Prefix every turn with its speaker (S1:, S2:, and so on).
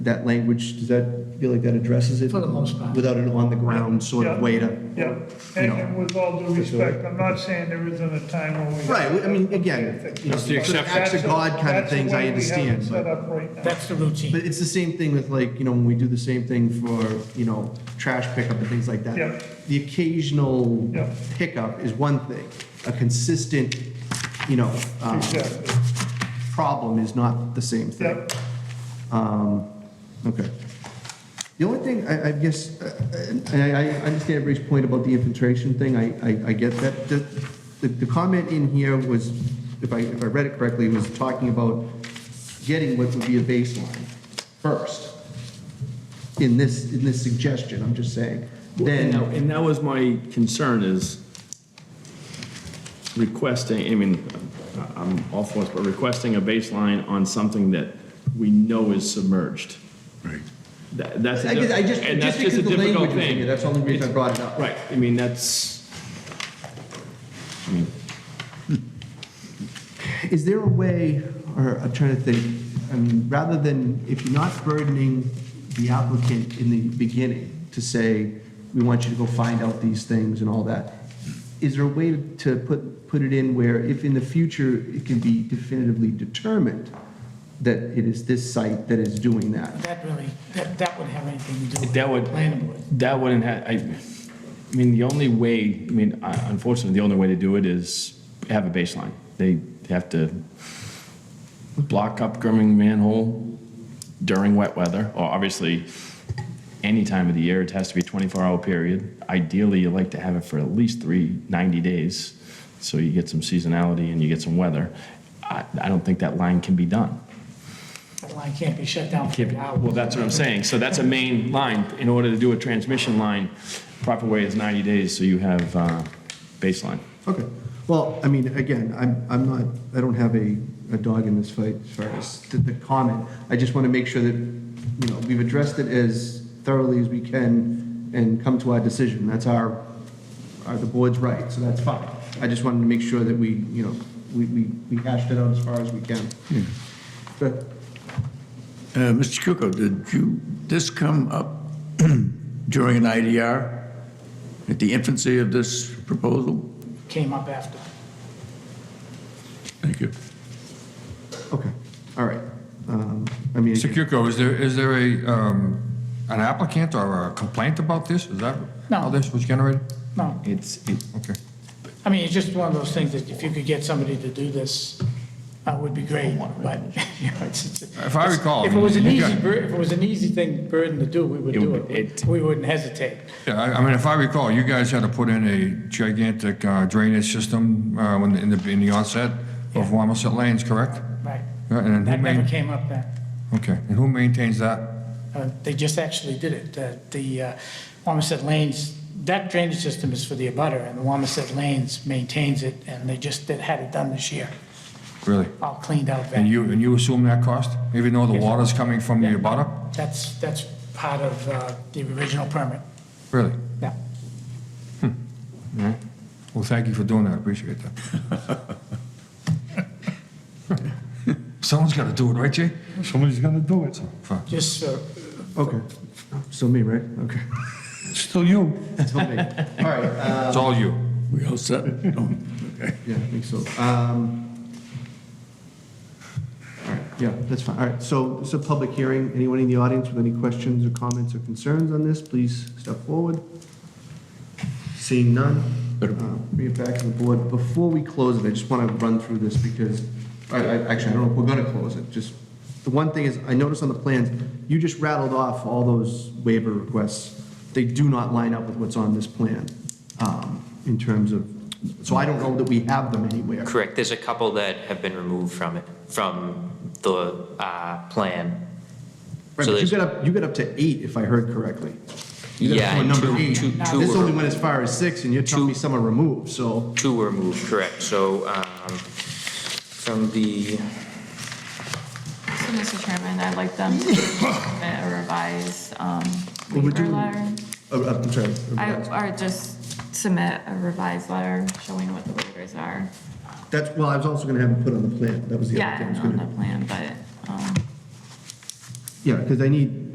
S1: that language, does that, feel like that addresses it?
S2: For the most part.
S1: Without an on-the-ground sort of
S3: Yeah.
S1: way to.
S3: Yeah,
S1: you
S3: and
S1: know.
S3: and with all due respect, I'm not saying there isn't a time when we.
S1: Right, I mean, again, you know,
S3: It's
S1: sort of acts of God kind of things, I understand,
S3: That's the way we have it
S1: but,
S3: set up right now.
S2: That's the routine.
S1: but it's the same thing with like, you know, when we do the same thing for, you know, trash pickup and things like that.
S3: Yeah.
S1: The occasional
S3: Yeah.
S1: pickup is one thing, a consistent, you know, um,
S3: Exactly,
S1: problem is not the same thing.
S3: yep,
S1: Um, Okay. The only thing, I, I guess, uh, and I, I understand everybody's point about the infiltration thing, I, I, I get that. The, the- the comment in here was, if I, if I read it correctly, was talking about getting what would be a baseline first in this, in this suggestion, I'm just saying.
S4: And that-
S1: Then,
S4: and that was my concern is requesting, I mean, I'm all for it, but requesting a baseline on something that we know is submerged.
S5: Right.
S4: That- That's, a
S1: I guess- I
S4: diff-
S1: just,
S4: and that's
S1: just
S4: just
S1: because the
S4: a
S1: language
S4: difficult
S1: was in here,
S4: thing.
S1: that's the only reason I
S4: It's-
S1: brought it up.
S4: Right, I mean, that's, I mean,
S1: Is there a way, or I'm trying to think, um, rather than, if you're not burdening the applicant in the beginning to say, we want you to go find out these things and all that, is there a way to put, put it in where if in the future it can be definitively determined that it is this site that is doing that?
S2: That really, that, that would have anything to do with.
S4: That would,
S2: Planning board.
S4: that wouldn't have, I, I mean, the only way, I mean, I- unfortunately, the only way to do it is have a baseline. They have to block up Grimming manhole during wet weather, or obviously, any time of the year, it has to be a 24-hour period. Ideally, you like to have it for at least three, 90 days, so you get some seasonality and you get some weather. I, I don't think that line can be done.
S2: That line can't be shut down for
S4: Can't
S2: an
S4: be-
S2: hour.
S4: Well, that's what I'm saying. So that's a main line. In order to do a transmission line, proper way is 90 days, so you have uh, baseline.
S1: Okay, well, I mean, again, I'm, I'm not, I don't have a, a dog in this fight as far as the, the comment. I just want to make sure that, you know, we've addressed it as thoroughly as we can and come to our decision. That's our, our, the board's right, so that's fine. I just wanted to make sure that we, you know, we, we, we hashed it out as far as we can. But
S5: Uh, Mr. Kukoc, did you, this come up during an IDR at the infancy of this proposal?
S2: Came up after.
S5: Thank you.
S1: Okay, all right. Um, I mean,
S6: Mr. Cuco, is there, is there a, um, an applicant or a complaint about this? Is that
S2: No.
S6: how this was generated?
S2: No,
S4: It's, it-
S6: Okay.
S2: I mean, it's just one of those things that if you could get somebody to do this, that would be great, but, you know, it's. it's-
S6: If I recall,
S2: If it was an
S6: you
S2: easy,
S6: got-
S2: bur- if it was an easy thing burden to do, we would
S4: It
S2: do
S4: would-
S2: it.
S4: it-
S2: We wouldn't hesitate.
S6: Yeah, I, I mean, if I recall, you guys had to put in a gigantic uh, drainage system, uh, when, in the, in the onset of Wamisit Lanes, correct?
S2: Right.
S6: Yeah, and then who
S2: That never
S6: main-
S2: came up then.
S6: Okay, and who maintains that?
S2: Uh, They just actually did it. Uh, The uh, Wamisit Lanes, that drainage system is for the abutter, and the Wamisit Lanes maintains it, and they just did- had it done this year,
S6: Really?
S2: all cleaned out
S6: And
S2: back.
S6: you, and you assume that cost, even though the
S2: Yes.
S6: water's coming from
S2: Yeah.
S6: the abutter?
S2: That's, that's part of uh, the original permit.
S6: Really?
S2: Yeah.
S6: Well, thank you for doing that, I appreciate that. Someone's gotta do it, right, Jay? Somebody's gonna do it.
S2: Just for
S1: okay, still me, right? Okay,
S6: Still you.
S1: still me. All right, uh,
S6: It's all you.
S5: We all set? Oh. No. Okay.
S1: Yeah, I think so. Um, All right, yeah, that's fine. All right, so it's a public hearing. Anyone in the audience with any questions or comments or concerns on this, please step forward. Seeing none, uh, bring it back to the board. Before we close it, I just want to run through this because, I, I, actually, I don't know if we're going to close it. Just, the one thing is, I noticed on the plans, you just rattled off all those waiver requests. They do not line up with what's on this plan, um, in terms of, so I don't know that we have them anywhere.
S7: Correct, there's a couple that have been removed from it, from the uh, plan.
S1: Right,
S7: So
S1: but you
S7: there's-
S1: got up, you got up to eight, if I heard correctly. You got
S7: Yeah,
S1: someone number
S7: two-
S1: eight.
S7: two- two
S1: This
S7: were-
S1: only went as far as six, and you're telling me
S7: Two-
S1: some are removed, so,
S7: Two were moved, correct, so um, from the,
S8: So, Mr. Chairman, I'd like them to submit a revised um,
S1: Well, we're
S8: waiver
S1: doing-
S8: letter.
S1: uh, uh, I'm sorry.
S8: I- Or just submit a revised letter showing what the waivers are.
S1: That's, well, I was also gonna have it put on the plan, that was the other
S8: Yeah,
S1: thing I was
S8: and on the
S1: gonna.
S8: plan, but um,
S1: Yeah, because I need,